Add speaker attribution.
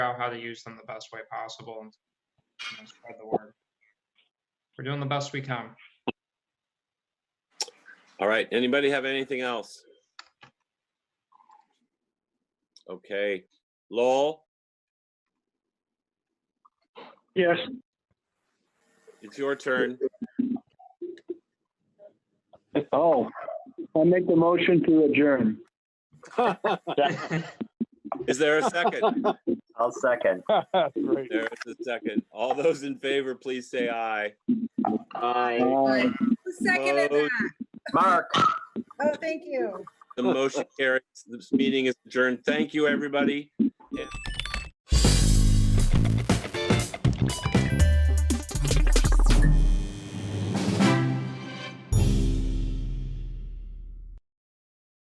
Speaker 1: out how to use them the best way possible and you know, spread the word. We're doing the best we can.
Speaker 2: All right, anybody have anything else? Okay, Lowell,
Speaker 3: Yes,
Speaker 2: it's your turn.
Speaker 3: oh, I make the motion to adjourn.
Speaker 2: Is there a second?
Speaker 4: I'll second.
Speaker 3: Great.
Speaker 2: There is a second. All those in favor, please say aye.
Speaker 4: Aye.
Speaker 3: Uh,
Speaker 5: Who seconded
Speaker 2: Oh.
Speaker 5: that?
Speaker 4: Mark,
Speaker 5: Oh, thank you.
Speaker 2: The motion carries. This meeting is adjourned. Thank you, everybody. And